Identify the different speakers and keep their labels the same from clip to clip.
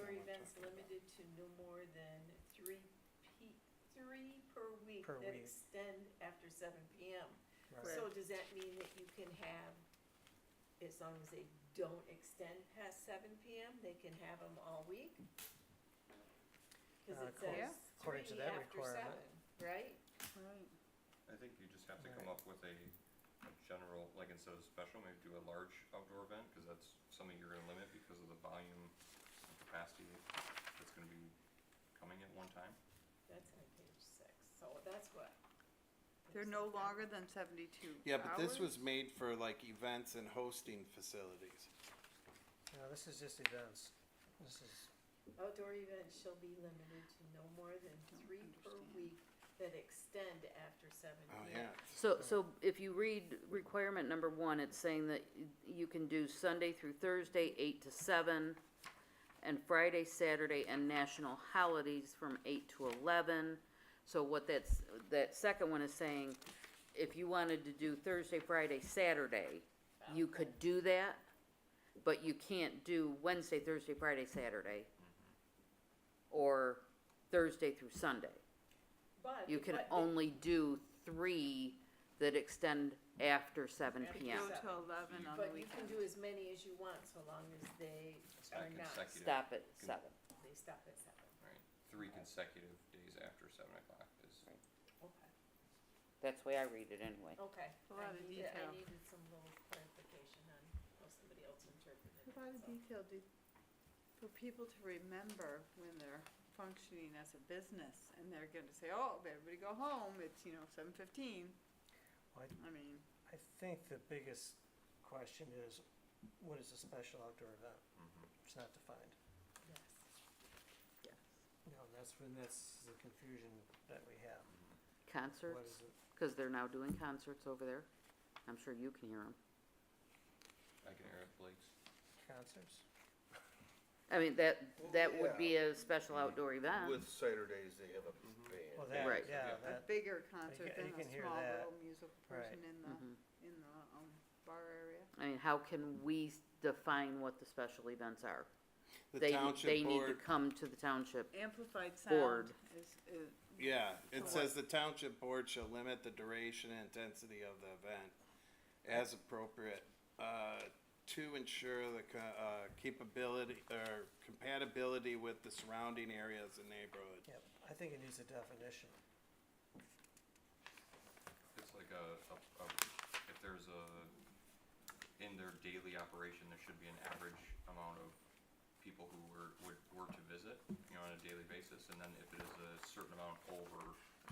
Speaker 1: one's limited to no more than three pe- three per week
Speaker 2: Per
Speaker 1: that
Speaker 2: week.
Speaker 1: extend after seven P M.
Speaker 2: Right.
Speaker 1: So does that mean that you can have, as long as they don't extend past seven P M, they can have them all week? Cause it
Speaker 2: Uh, according-
Speaker 1: says
Speaker 2: according to
Speaker 1: three
Speaker 2: that
Speaker 1: after
Speaker 2: requirement.
Speaker 1: seven, right?
Speaker 3: Right.
Speaker 4: I think you just have to come up with a, a general, like instead of special, maybe do a large outdoor event, cause that's something you're gonna limit because of the volume and capacity that's gonna be coming at one time.
Speaker 1: That's on page six, so that's what.
Speaker 3: They're no longer than seventy-two hours?
Speaker 5: Yeah, but this was made for like events and hosting facilities.
Speaker 2: No, this is just events. This is,
Speaker 1: Outdoor events shall be limited to no more than
Speaker 3: Don't
Speaker 1: three per
Speaker 3: understand.
Speaker 1: week that extend after seven
Speaker 5: Oh,
Speaker 1: P
Speaker 5: yeah.
Speaker 1: M.
Speaker 6: So, so if you read requirement number one, it's saying that y- you can do Sunday through Thursday, eight to seven, and Friday, Saturday, and national holidays from eight to eleven. So what that's, that second one is saying, if you wanted to do Thursday, Friday, Saturday, you could do that, but you can't do Wednesday, Thursday, Friday, Saturday, or Thursday through Sunday.
Speaker 1: But.
Speaker 6: You can
Speaker 1: but they-
Speaker 6: only do three that extend after seven
Speaker 1: After
Speaker 6: PM.
Speaker 3: Go
Speaker 1: Yeah.
Speaker 3: to eleven on the
Speaker 1: But you can
Speaker 3: weekend.
Speaker 1: do as many as you want, so long as they
Speaker 4: It's
Speaker 1: are
Speaker 4: not
Speaker 1: not,
Speaker 4: consecutive.
Speaker 6: Stop at seven.
Speaker 1: they stop at seven,
Speaker 4: Right, three consecutive days after seven o'clock is,
Speaker 1: okay,
Speaker 6: That's the way I read it anyway.
Speaker 1: okay.
Speaker 3: A lot of
Speaker 1: I needed-
Speaker 3: detail.
Speaker 1: I needed some little clarification on how somebody else interpreted it,
Speaker 3: A lot of
Speaker 1: so.
Speaker 3: detail, do, for people to remember when they're functioning as a business, and they're gonna say, oh, everybody go home, it's, you know, seven fifteen.
Speaker 2: Well,
Speaker 3: I mean,
Speaker 2: I think the biggest question is, what is a special outdoor event?
Speaker 4: Mhm.
Speaker 2: It's not defined.
Speaker 1: Yes.
Speaker 3: yes.
Speaker 2: You know, that's when, that's the confusion that we have. What
Speaker 6: Concerts,
Speaker 2: is it?
Speaker 6: cause they're now doing concerts over there. I'm sure you can hear them.
Speaker 4: I can hear it, Blake's.
Speaker 2: Concerts?
Speaker 6: I mean, that,
Speaker 7: Well,
Speaker 6: that would
Speaker 7: yeah.
Speaker 6: be a special outdoor event.
Speaker 7: With Saturdays, they have a
Speaker 2: Well,
Speaker 7: band.
Speaker 2: that,
Speaker 6: Right.
Speaker 2: yeah,
Speaker 4: Yeah.
Speaker 3: A
Speaker 2: that,
Speaker 3: bigger concert
Speaker 2: ca-
Speaker 3: than
Speaker 2: you
Speaker 3: a
Speaker 2: can hear
Speaker 3: small
Speaker 2: that.
Speaker 3: little musical person in the,
Speaker 6: Mhm.
Speaker 3: in the, um, bar area.
Speaker 6: I mean, how can we s- define what the special events are?
Speaker 5: The
Speaker 6: They, they
Speaker 5: township
Speaker 6: need to
Speaker 5: board,
Speaker 6: come to the township.
Speaker 3: Amplified sound
Speaker 6: Board.
Speaker 3: is, is,
Speaker 5: yeah,
Speaker 3: For
Speaker 5: it says the township board shall limit the duration and intensity of the event as appropriate. Uh, to ensure the co- uh, capability or compatibility with the surrounding areas and neighborhood.
Speaker 2: yeah, I think it needs a definition.
Speaker 4: It's like a, a, a, if there's a, in their daily operation, there should be an average amount of people who were, would, were to visit, you know, on a daily basis, and then if it is a certain amount over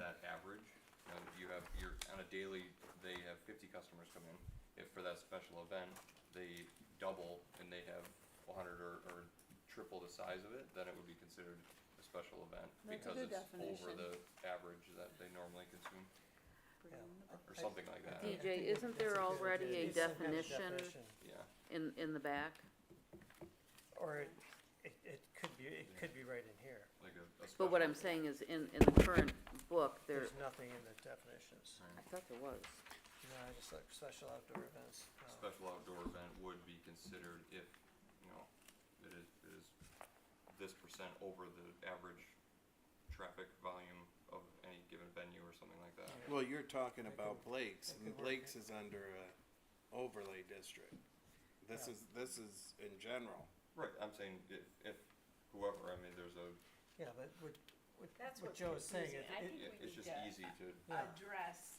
Speaker 4: that average, you know, you have, you're, on a daily, they have fifty customers come in, if for that special event, they double and they have hundred or, or triple the size of it, then it would be considered a special event,
Speaker 3: That's a
Speaker 4: because
Speaker 3: good
Speaker 4: it's
Speaker 3: definition.
Speaker 4: over the average that they normally consume,
Speaker 3: bring
Speaker 2: Yeah.
Speaker 3: the
Speaker 4: or something like that.
Speaker 6: DJ,
Speaker 2: I think
Speaker 6: isn't
Speaker 2: that's
Speaker 6: there
Speaker 2: a good
Speaker 6: already
Speaker 2: idea. Needs
Speaker 6: a
Speaker 2: some kind of
Speaker 6: definition?
Speaker 2: definition.
Speaker 4: Yeah.
Speaker 6: in, in the back.
Speaker 2: Or it, it, it could be, it could be right in here.
Speaker 4: like a, a
Speaker 6: But
Speaker 4: special-
Speaker 6: what I'm saying is in, in the current book, there,
Speaker 2: There's nothing in the definitions.
Speaker 6: I thought there was.
Speaker 2: No, I just like special outdoor events. Um, no.
Speaker 4: Special outdoor event would be considered if, you know, it is, it is this percent over the average traffic volume of any given venue or something like that.
Speaker 5: Well, you're talking
Speaker 2: That
Speaker 5: about
Speaker 2: could-
Speaker 5: Blake's,
Speaker 2: that
Speaker 5: and
Speaker 2: could work.
Speaker 5: Blake's is under a overlay district. This
Speaker 2: Yeah.
Speaker 5: is, this is in general.
Speaker 4: Right, I'm saying if, if whoever, I mean, there's a,
Speaker 2: Yeah, but what, what,
Speaker 1: That's
Speaker 2: what
Speaker 1: what's
Speaker 2: Joe is saying, it,
Speaker 1: confusing. I
Speaker 2: it,
Speaker 1: think
Speaker 4: it-
Speaker 1: we
Speaker 4: it's
Speaker 1: need
Speaker 4: just
Speaker 1: to-
Speaker 4: easy to,
Speaker 2: Yeah.
Speaker 1: address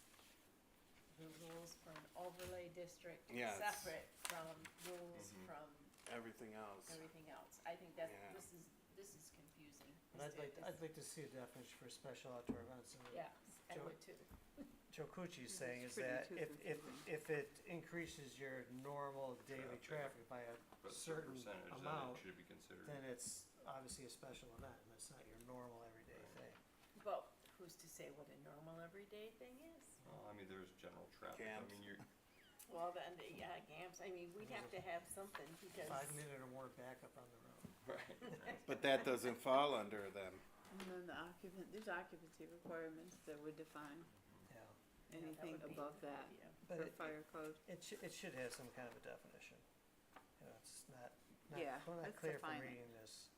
Speaker 1: the rules for an overlay district
Speaker 5: Yeah, it's-
Speaker 1: separate from rules
Speaker 4: Mhm.
Speaker 1: from
Speaker 5: Everything else.
Speaker 1: everything else. I think that's,
Speaker 5: Yeah.
Speaker 1: this is, this is confusing.
Speaker 2: and I'd
Speaker 1: Let's do
Speaker 2: like,
Speaker 1: this.
Speaker 2: I'd like to see a definition for special outdoor events. and
Speaker 1: Yeah, I
Speaker 2: Joe-
Speaker 1: would too.
Speaker 2: Joe Cucci's
Speaker 3: It's
Speaker 2: saying is
Speaker 3: pretty
Speaker 2: that
Speaker 3: too
Speaker 2: if, if,
Speaker 3: confusing.
Speaker 2: if it increases your normal daily
Speaker 4: Traffic.
Speaker 2: traffic by a
Speaker 4: but a
Speaker 2: certain
Speaker 4: percentage that
Speaker 2: amount,
Speaker 4: it should be considered.
Speaker 2: then it's obviously a special event, and it's not your normal everyday
Speaker 4: Right.
Speaker 2: thing.
Speaker 1: But who's to say what a normal everyday thing is?
Speaker 4: Uh, I mean, there's general traffic, I
Speaker 5: Camps.
Speaker 4: mean, you're,
Speaker 1: Well, then, the- yeah, GAMS, I mean, we'd have to have something because,
Speaker 2: Five minute or more backup on the road.
Speaker 4: right, right.
Speaker 5: But that doesn't fall under them.
Speaker 3: And then the occupant, there's occupancy requirements that would define
Speaker 1: you
Speaker 2: Yeah,
Speaker 1: know, that
Speaker 3: anything
Speaker 1: would be
Speaker 3: above
Speaker 1: a good
Speaker 3: that
Speaker 1: idea.
Speaker 2: but
Speaker 3: for
Speaker 2: it,
Speaker 3: fire code.
Speaker 2: it should, it should have some kind of a definition. You know, it's not, not,
Speaker 3: Yeah,
Speaker 2: cl- not
Speaker 3: let's
Speaker 2: clear from
Speaker 3: define it.
Speaker 2: reading this.